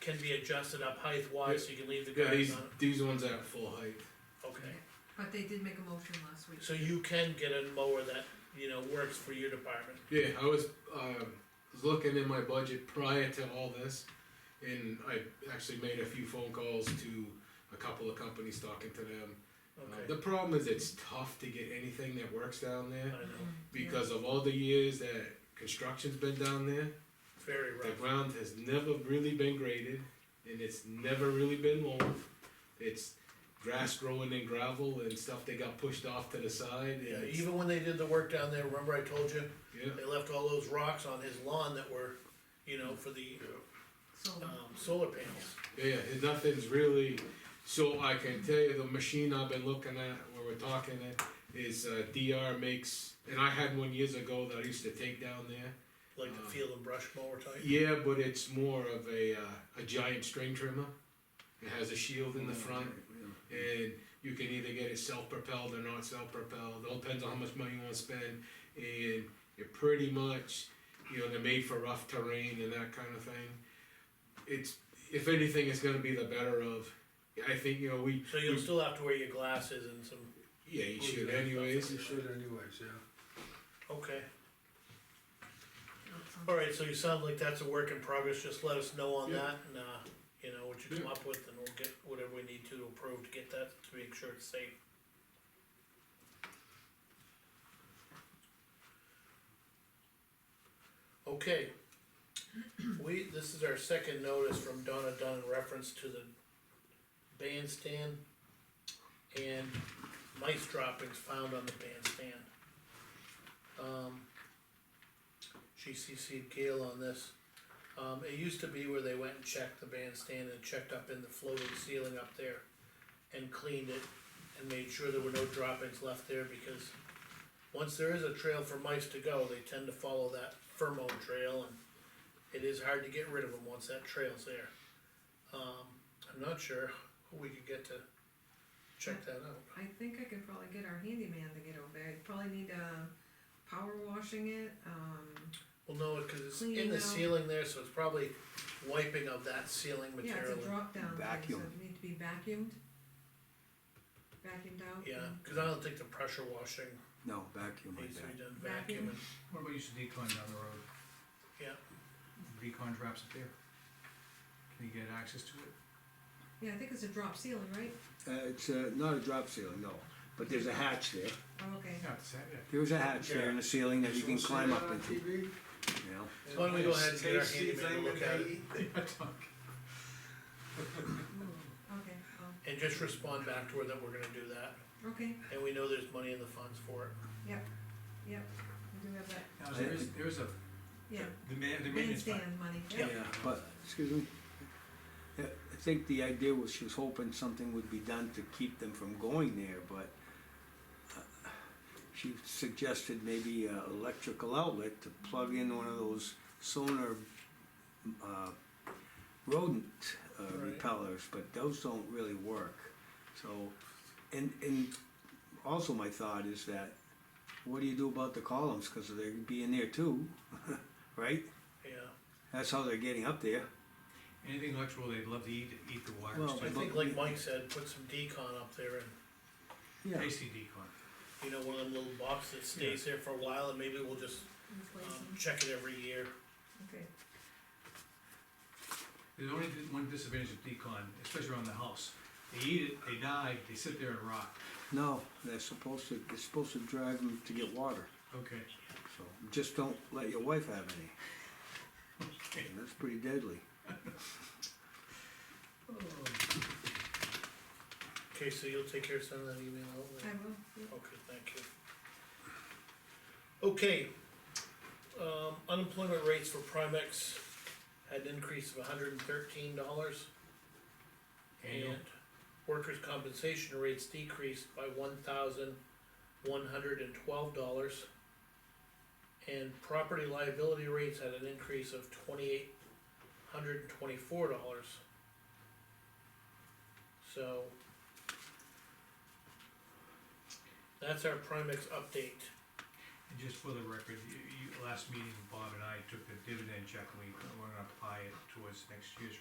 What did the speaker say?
can be adjusted up height wise, so you can leave the Yeah, guys these, on, these ones are at full height. okay. But they did make a motion last week. So you can get a mower that, you know, works for your department, Yeah, I was, um, was looking in my budget prior to all this, and I actually made a few phone calls to a couple of companies talking to them. Uh, okay, The problem is it's tough to get anything that works down I there, know, because of all the years that construction's been down there, it's very the rough, ground has never really been graded, and it's never really been mowed. It's grass growing in gravel and stuff that got pushed off to the side, and Yeah, it's- even when they did the work down there, remember I told you, yeah. they left all those rocks on his lawn that were, you know, for the, So, um, solar panels. Yeah, nothing's really, so I can tell you, the machine I've been looking at, where we're talking at, is uh, DR makes, and I had one years ago that I used to take down there. like the Um, field and brush mower type. Yeah, but it's more of a, uh, a giant string trimmer. It has a shield in the Mm. front, and you can either get it self-propelled or not self-propelled, it all depends on how much money you wanna spend. And it pretty much, you know, they're made for rough terrain and that kind of thing. It's, if anything, it's gonna be the better of, I think, you know, we, so you'll still have to wear your glasses and some, yeah, you should Okay. anyways. You should anyways, yeah. okay. that's all. Alright, so you sound like that's a work in progress, just let us know on Yeah. that, and, uh, you know, what you come Yeah. up with, and we'll get whatever we need to approve to get that, to make sure it's safe. Okay. We, this is our second notice from Donna Dunn in reference to the bandstand and mice droppings found on the bandstand. Um, she CC'd Gail on this. Um, it used to be where they went and checked the bandstand and checked up in the floating ceiling up there and cleaned it and made sure there were no droppings left there because once there is a trail for mice to go, they tend to follow that Fermo trail and it is hard to get rid of them once that trail's there. Um, I'm not sure who we could get to check that out. I think I could probably get our handyman to get over there, I'd probably need, uh, power washing it, um, Well, no, cause it's in Cleaning the out. ceiling there, so it's probably wiping of that ceiling yeah, it's material. a drop down thing, so Vacuum. it need to be vacuumed. Vacuumed out. Yeah, and- cause I don't think the pressure washing No, vacuum like needs to be that. done vacuum and, What about use of decon down the road? yeah, Decon drops it there. Can you get access to it? Yeah, I think it's a drop ceiling, right? Uh, it's, uh, not a drop ceiling, no, but there's a hatch there. Oh, okay. Yeah, it's, yeah. There is a hatch there in the ceiling that you can climb up into, you TV? know? So why don't we go ahead and get our handyman to look at it? Mm, Okay, oh, and just respond back to her that we're gonna do that. okay, And we know there's money in the funds for it. yep, we do have that, Now, there is, there is a, yeah, the man, the maintenance. fund. bandstand money, Yeah. yeah. Yeah, but, excuse me. Yeah, I think the idea was she was hoping something would be done to keep them from going there, but uh, she suggested maybe a electrical outlet to plug in one of those sonar uh, rodent uh, Right. repellers, but those don't really work. So, and, and also my thought is that, what do you do about the columns, cause they're being there too, right? Yeah, That's how they're getting up there. Anything electrical, they'd love to eat, eat the wires, Well, so I think like Mike said, put some decon up there and, Yeah. tasty decon. you know, one of them little boxes that stays there for a while and maybe we'll just, um, Replacing, check it every year. okay, There's only di- one disadvantage of decon, especially around the house. They eat it, they die, they sit there and rot. No, they're supposed to, they're supposed to drive them to get water, Okay. so just don't let your wife have any. Okay. That's pretty deadly. Oh. Okay, so you'll take care of sending that email out? then? I will, yeah. Okay, thank you. Okay, um, unemployment rates for Primex had an increase of hundred and thirteen dollars. Annual. And workers' compensation rates decreased by one thousand one hundred and twelve dollars. And property liability rates had an increase of twenty-eight hundred and twenty-four dollars. So. That's our Primex update. And just for the record, you, you, last meeting, Bob and I took the dividend check and we, we're gonna apply it towards next year's